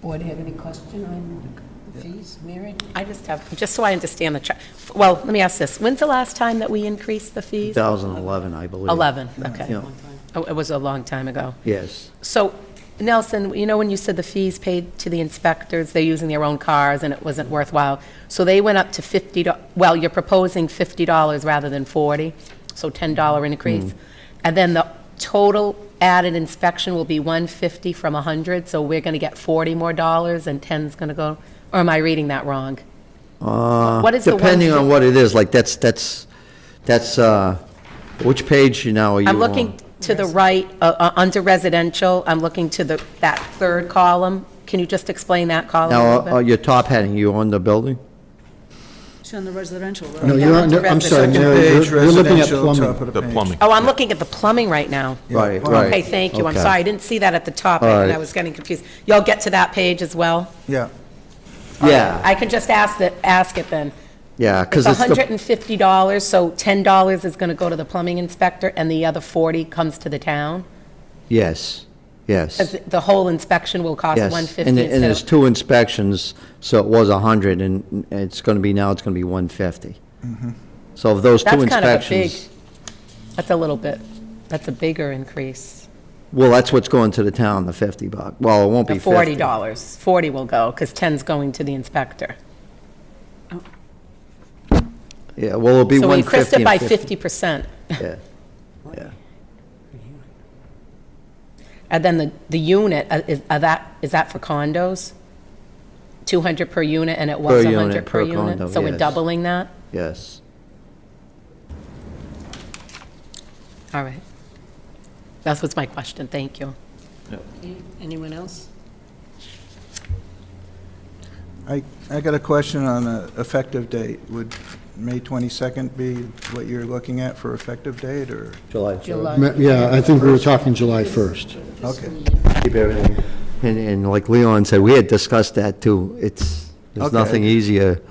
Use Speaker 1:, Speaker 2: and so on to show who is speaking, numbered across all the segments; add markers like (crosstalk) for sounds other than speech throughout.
Speaker 1: Board have any question on the fees, Mary?
Speaker 2: I just have, just so I understand the, tra- well, let me ask this. When's the last time that we increased the fees?
Speaker 3: 2011, I believe.
Speaker 2: 11, okay.
Speaker 3: Yeah.
Speaker 2: Oh, It was a long time ago.
Speaker 3: Yes,
Speaker 2: So, Nelson, you know when you said the fees paid to the inspectors, they're using their own cars and it wasn't worthwhile? So they went up to 50, do- well, you're proposing $50 rather than 40, so $10
Speaker 3: Mm-hmm.
Speaker 2: increase. And then the total added inspection will be 150 from 100, so we're going to get 40 more dollars and 10's going to go, or am I reading that wrong? What is the one
Speaker 3: Uh, depending
Speaker 2: fif-
Speaker 3: on what it is, like, that's, that's, that's, uh, which page now are you on?
Speaker 2: I'm looking to the right, uh, uh, under residential, I'm looking to the, that third column. Can you just explain that column a
Speaker 3: Now,
Speaker 2: little
Speaker 3: uh,
Speaker 2: bit?
Speaker 3: your top heading, you on the building?
Speaker 4: It's on the residential road.
Speaker 5: No, you're, on- I'm sorry, Mary, you're- you're looking at plumbing.
Speaker 6: The plumbing.
Speaker 2: Oh, I'm looking at the plumbing right now.
Speaker 3: Right, right.
Speaker 2: Okay, thank you, I'm
Speaker 3: Okay.
Speaker 2: sorry, I didn't see that at the top, and I
Speaker 3: Alright.
Speaker 2: was getting confused. Y'all get to that page as well?
Speaker 5: Yeah.
Speaker 3: Yeah,
Speaker 2: I can just ask that, ask it then.
Speaker 3: yeah,
Speaker 2: It's
Speaker 3: because it's the,
Speaker 2: $150, so $10 is going to go to the plumbing inspector, and the other 40 comes to the town?
Speaker 3: yes, yes,
Speaker 2: 'Cause the whole inspection will cost
Speaker 3: yes.
Speaker 2: 150
Speaker 3: And it- and
Speaker 2: instead
Speaker 3: there's
Speaker 2: of...
Speaker 3: two inspections, so it was 100, and it's going to be, now it's going to be 150. So of those two
Speaker 2: That's kind of a big-
Speaker 3: inspections,
Speaker 2: That's a little bit, that's a bigger increase.
Speaker 3: well, that's what's going to the town, the 50 buck. Well, it won't be
Speaker 2: The
Speaker 3: 50.
Speaker 2: $40, 40 will go, because 10's going to the inspector.
Speaker 3: Yeah, well, it'll be
Speaker 2: So we
Speaker 3: 150
Speaker 2: increased it
Speaker 3: and
Speaker 2: by
Speaker 3: 50.
Speaker 2: 50%.
Speaker 3: Yeah, yeah.
Speaker 2: And then the, the unit, uh, is, are that, is that for condos? 200 per unit, and it was
Speaker 3: Per unit,
Speaker 2: 100 per
Speaker 3: per
Speaker 2: unit?
Speaker 3: condo,
Speaker 2: So we're
Speaker 3: yes.
Speaker 2: doubling that?
Speaker 3: Yes.
Speaker 2: All right. That was my question, thank you.
Speaker 1: Anyone else?
Speaker 5: I, I got a question on the effective date. Would May 22nd be what you're looking at for effective date, or?
Speaker 3: July
Speaker 1: July.
Speaker 5: Ma-
Speaker 7: Yeah, I think we were talking July 1st.
Speaker 5: Okay,
Speaker 3: Keep everything. And, and like Leon said, we had discussed that too. It's, there's
Speaker 5: Okay.
Speaker 3: nothing easier.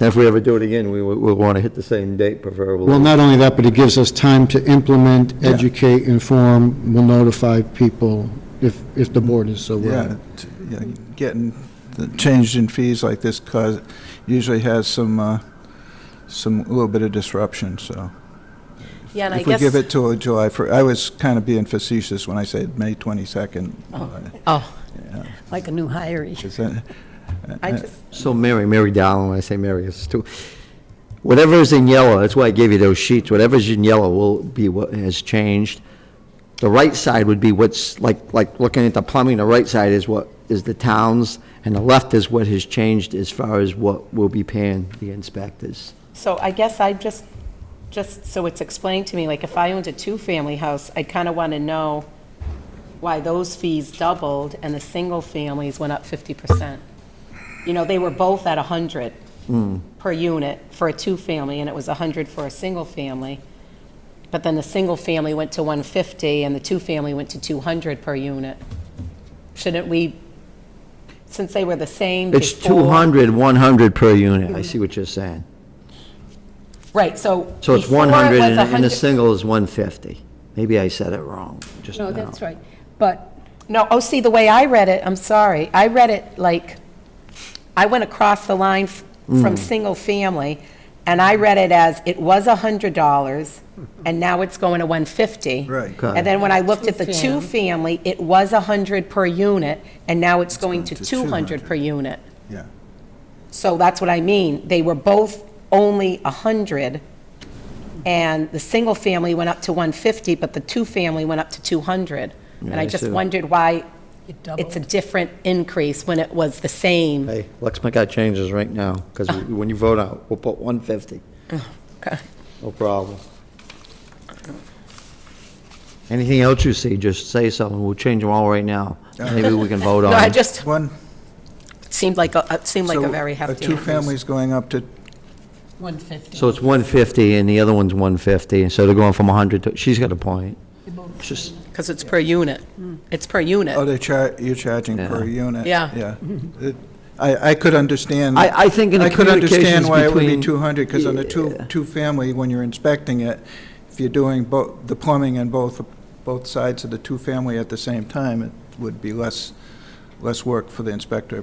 Speaker 3: And if we ever do it again, we, would- we'll want to hit the same date preferably.
Speaker 7: Well, not only that, but it gives us time to implement, educate, inform, we'll notify people if, if the board is so
Speaker 5: yeah,
Speaker 7: willing.
Speaker 5: t- yeah, getting, the change in fees like this cause, usually has some, uh, some, a little bit of disruption, so.
Speaker 2: Yeah, and I
Speaker 5: If we
Speaker 2: guess,
Speaker 5: give it to a July 1st, I was kind of being facetious when I said May 22nd. Uh,
Speaker 2: oh,
Speaker 1: Like a new hiree.
Speaker 5: is that-
Speaker 2: I
Speaker 3: uh,
Speaker 2: just,
Speaker 3: So Mary, Mary Dowling, when I say Mary, it's too, whatever is in yellow, that's why I gave you those sheets, whatever's in yellow will be what has changed. The right side would be what's, like, like looking at the plumbing, the right side is what, is the towns, and the left is what has changed as far as what we'll be paying the inspectors.
Speaker 2: so I guess I just, just so it's explained to me, like, if I owned a two-family house, I kind of want to know why those fees doubled and the single families went up 50%. You know, they were both at 100
Speaker 3: Mm.
Speaker 2: per unit for a two-family, and it was 100 for a single family. But then the single family went to 150 and the two-family went to 200 per unit. Shouldn't we, since they were the same
Speaker 3: It's
Speaker 2: before-
Speaker 3: 200, 100 per unit, I see what you're saying.
Speaker 2: Right, so.
Speaker 3: So it's
Speaker 2: before it
Speaker 3: 100,
Speaker 2: was
Speaker 3: and and the
Speaker 2: 100
Speaker 3: single is 150. Maybe I said it wrong, just now.
Speaker 1: No, that's right. But
Speaker 2: No, oh, see, the way I read it, I'm sorry, I read it like, I went across the line f-
Speaker 3: Mm.
Speaker 2: from single family, and I read it as it was hundred dollars, and now it's going to one fifty.
Speaker 5: Right.
Speaker 2: And then when I looked at the
Speaker 1: Two fam.
Speaker 2: two-family, it was hundred per unit, and now it's going to
Speaker 5: to
Speaker 2: two hundred per unit.
Speaker 5: Yeah,
Speaker 2: So that's what I mean, they were both only hundred, and the single family went up to one fifty, but the two-family went up to two hundred. And
Speaker 3: Yeah,
Speaker 2: I
Speaker 3: I
Speaker 2: just
Speaker 3: see.
Speaker 2: wondered why
Speaker 1: it
Speaker 2: it's a
Speaker 1: doubled.
Speaker 2: different increase when it was the same.
Speaker 3: Hey, let's make our changes right now, because when you vote out, we'll put 150,
Speaker 2: Ah. Oh, Okay.
Speaker 3: no problem. Anything else you see, just say something, we'll change them all right now. Maybe we can vote on
Speaker 2: Ah. (laughs) No, I
Speaker 3: it.
Speaker 2: just
Speaker 5: one.
Speaker 2: it seemed like, a- it seemed like
Speaker 5: so
Speaker 2: a very hefty
Speaker 5: two
Speaker 2: increase.
Speaker 5: families going up to
Speaker 1: 150.
Speaker 3: So it's 150, and the other one's 150, so they're going from 100 to, she's got a point. It's Just,
Speaker 2: Because it's per unit. It's per
Speaker 5: Oh,
Speaker 2: unit.
Speaker 5: they're char, you're charging per unit?
Speaker 2: Yeah.
Speaker 5: Yeah. It- I, I could understand.
Speaker 3: I- I think in the
Speaker 5: I could understand
Speaker 3: communications
Speaker 5: why it would be
Speaker 3: between-
Speaker 5: 200, because on a two,
Speaker 3: Yeah.
Speaker 5: two-family, when you're inspecting it, if you're doing both, the plumbing and both, both sides of the two-family at the same time, it would be less, less work for the inspector,